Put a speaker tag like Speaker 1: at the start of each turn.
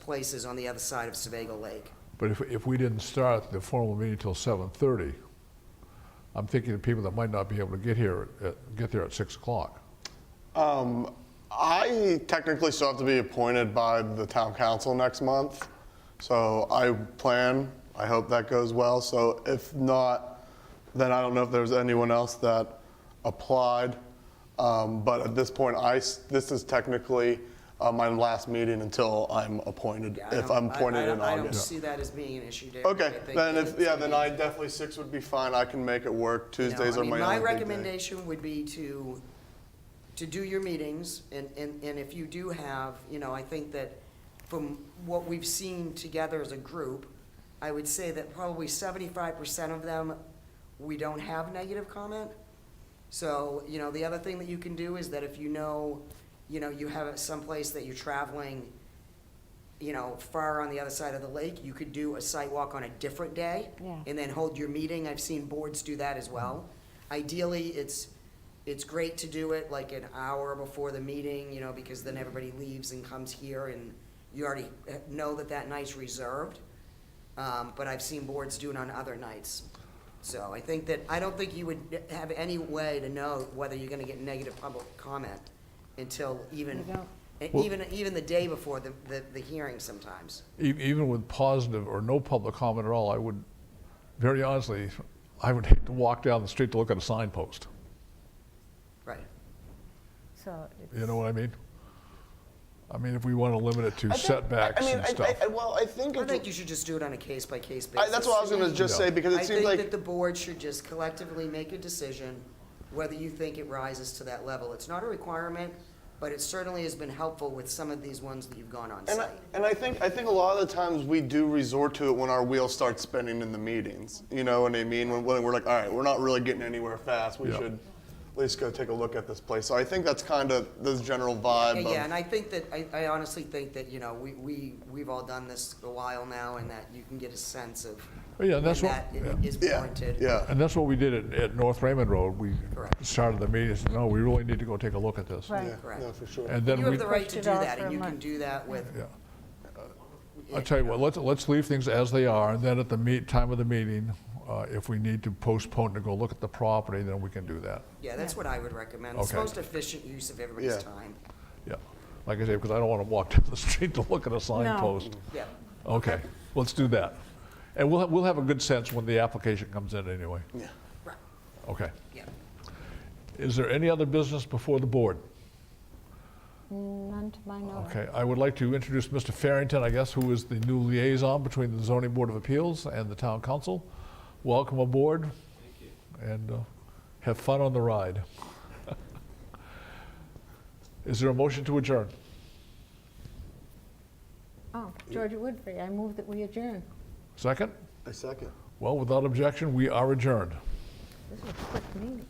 Speaker 1: places on the other side of Sevago Lake.
Speaker 2: But if, if we didn't start the formal meeting till seven thirty, I'm thinking of people that might not be able to get here, at, get there at six o'clock.
Speaker 3: Um, I technically still have to be appointed by the town council next month. So I plan, I hope that goes well. So if not, then I don't know if there's anyone else that applied. Um, but at this point, I, s- this is technically uh, my last meeting until I'm appointed,
Speaker 1: Yeah, I
Speaker 3: if
Speaker 1: don't-
Speaker 3: I'm
Speaker 1: I- I
Speaker 3: appointed
Speaker 1: don't-
Speaker 3: in
Speaker 1: I don't
Speaker 3: August.
Speaker 1: see that as being an issue, Derek. I
Speaker 3: Okay,
Speaker 1: think that
Speaker 3: then if,
Speaker 1: it's
Speaker 3: yeah,
Speaker 1: gonna
Speaker 3: then
Speaker 1: be-
Speaker 3: I definitely, six would be fine. I can make it work.
Speaker 1: No,
Speaker 3: Tuesdays
Speaker 1: I
Speaker 3: are
Speaker 1: mean,
Speaker 3: my
Speaker 1: My
Speaker 3: only big day.
Speaker 1: recommendation would be to, to do your meetings, and, and, and if you do have, you know, I think that from what we've seen together as a group, I would say that probably seventy-five percent of them, we don't have negative comment. So, you know, the other thing that you can do is that if you know, you know, you have someplace that you're traveling, you know, far on the other side of the lake, you could do a site walk on a different day.
Speaker 4: Yeah.
Speaker 1: And then hold your meeting. I've seen boards do that as well. Ideally, it's, it's great to do it like an hour before the meeting, you know, because then everybody leaves and comes here and you already eh, know that that night's reserved. Um, but I've seen boards do it on other nights. So I think that, I don't think you would have any way to know whether you're gonna get negative public comment until even,
Speaker 4: You don't.
Speaker 1: eh, even, even the day before the, the, the hearing sometimes.
Speaker 2: E- even with positive or no public comment at all, I would, very honestly, I would hate to walk down the street to look at a signpost.
Speaker 1: Right.
Speaker 4: So it's.
Speaker 2: You know what I mean? I mean, if we want to limit it to
Speaker 3: I think- I-
Speaker 2: setbacks
Speaker 3: I mean,
Speaker 2: and
Speaker 3: I- I-
Speaker 2: stuff.
Speaker 3: I- Well, I think.
Speaker 1: I
Speaker 3: if-
Speaker 1: think you should just do it on a case-by-case
Speaker 3: I-
Speaker 1: basis.
Speaker 3: That's what I was going to just
Speaker 2: Yeah.
Speaker 3: say, because
Speaker 1: I
Speaker 3: it seems
Speaker 1: think that
Speaker 3: like,
Speaker 1: the board should just collectively make a decision whether you think it rises to that level. It's not a requirement, but it certainly has been helpful with some of these ones that you've gone on
Speaker 3: and I,
Speaker 1: site.
Speaker 3: and I think, I think a lot of the times we do resort to it when our wheels start spinning in the meetings. You know what I mean? When, when we're like, all right, we're not really getting anywhere fast. We
Speaker 2: Yeah.
Speaker 3: should at least go take a look at this place. So I think that's kind of the general
Speaker 1: Yeah,
Speaker 3: vibe
Speaker 1: Yeah, and
Speaker 3: of,
Speaker 1: I think that, I, I honestly think that, you know, we, we, we've all done this a while now and that you can get a sense of.
Speaker 2: Oh, yeah, that's
Speaker 1: when
Speaker 2: what-
Speaker 1: That i-
Speaker 2: yeah.
Speaker 1: is
Speaker 3: yeah,
Speaker 1: warranted.
Speaker 3: yeah.
Speaker 2: And that's what we did at, at North Raymond Road. We
Speaker 1: Correct.
Speaker 2: started the meeting, and said, no, we really need to go take a look at this.
Speaker 4: Right.
Speaker 3: Yeah,
Speaker 1: Correct.
Speaker 3: No, for sure.
Speaker 2: And
Speaker 1: You
Speaker 2: then we,
Speaker 1: have the right to
Speaker 4: Pushed
Speaker 1: do
Speaker 4: it off
Speaker 1: that
Speaker 4: for
Speaker 1: and
Speaker 4: a
Speaker 1: you can
Speaker 4: month.
Speaker 1: do that with.
Speaker 2: yeah. I'll tell you what, let's, let's leave things as they are, and then at the meet, time of the meeting, uh, if we need to postpone to go look at the property, then we can do that.
Speaker 1: Yeah, that's what I would recommend. It's the
Speaker 2: Okay.
Speaker 1: most efficient use of everybody's
Speaker 3: Yeah.
Speaker 1: time.
Speaker 2: Yeah, like I say, because I don't want to walk down the street to look at a signpost.
Speaker 1: Yeah.
Speaker 2: Okay, let's do that. And we'll, we'll have a good sense when the application comes in anyway.
Speaker 3: Yeah.
Speaker 1: Right,
Speaker 2: Okay.
Speaker 1: yeah.
Speaker 2: Is there any other business before the board?
Speaker 4: None to my
Speaker 2: Uh-huh.
Speaker 4: knowledge.
Speaker 2: Okay, I would like to introduce Mr. Farrington, I guess, who is the new liaison between the zoning board of appeals and the town council. Welcome aboard. And uh, have fun on the ride. Is there a motion to adjourn?
Speaker 4: Oh, Georgia Woodbury, I move that we adjourn.
Speaker 2: Second?
Speaker 3: I second.
Speaker 2: Well, without objection, we are adjourned.
Speaker 4: This is a quick meeting.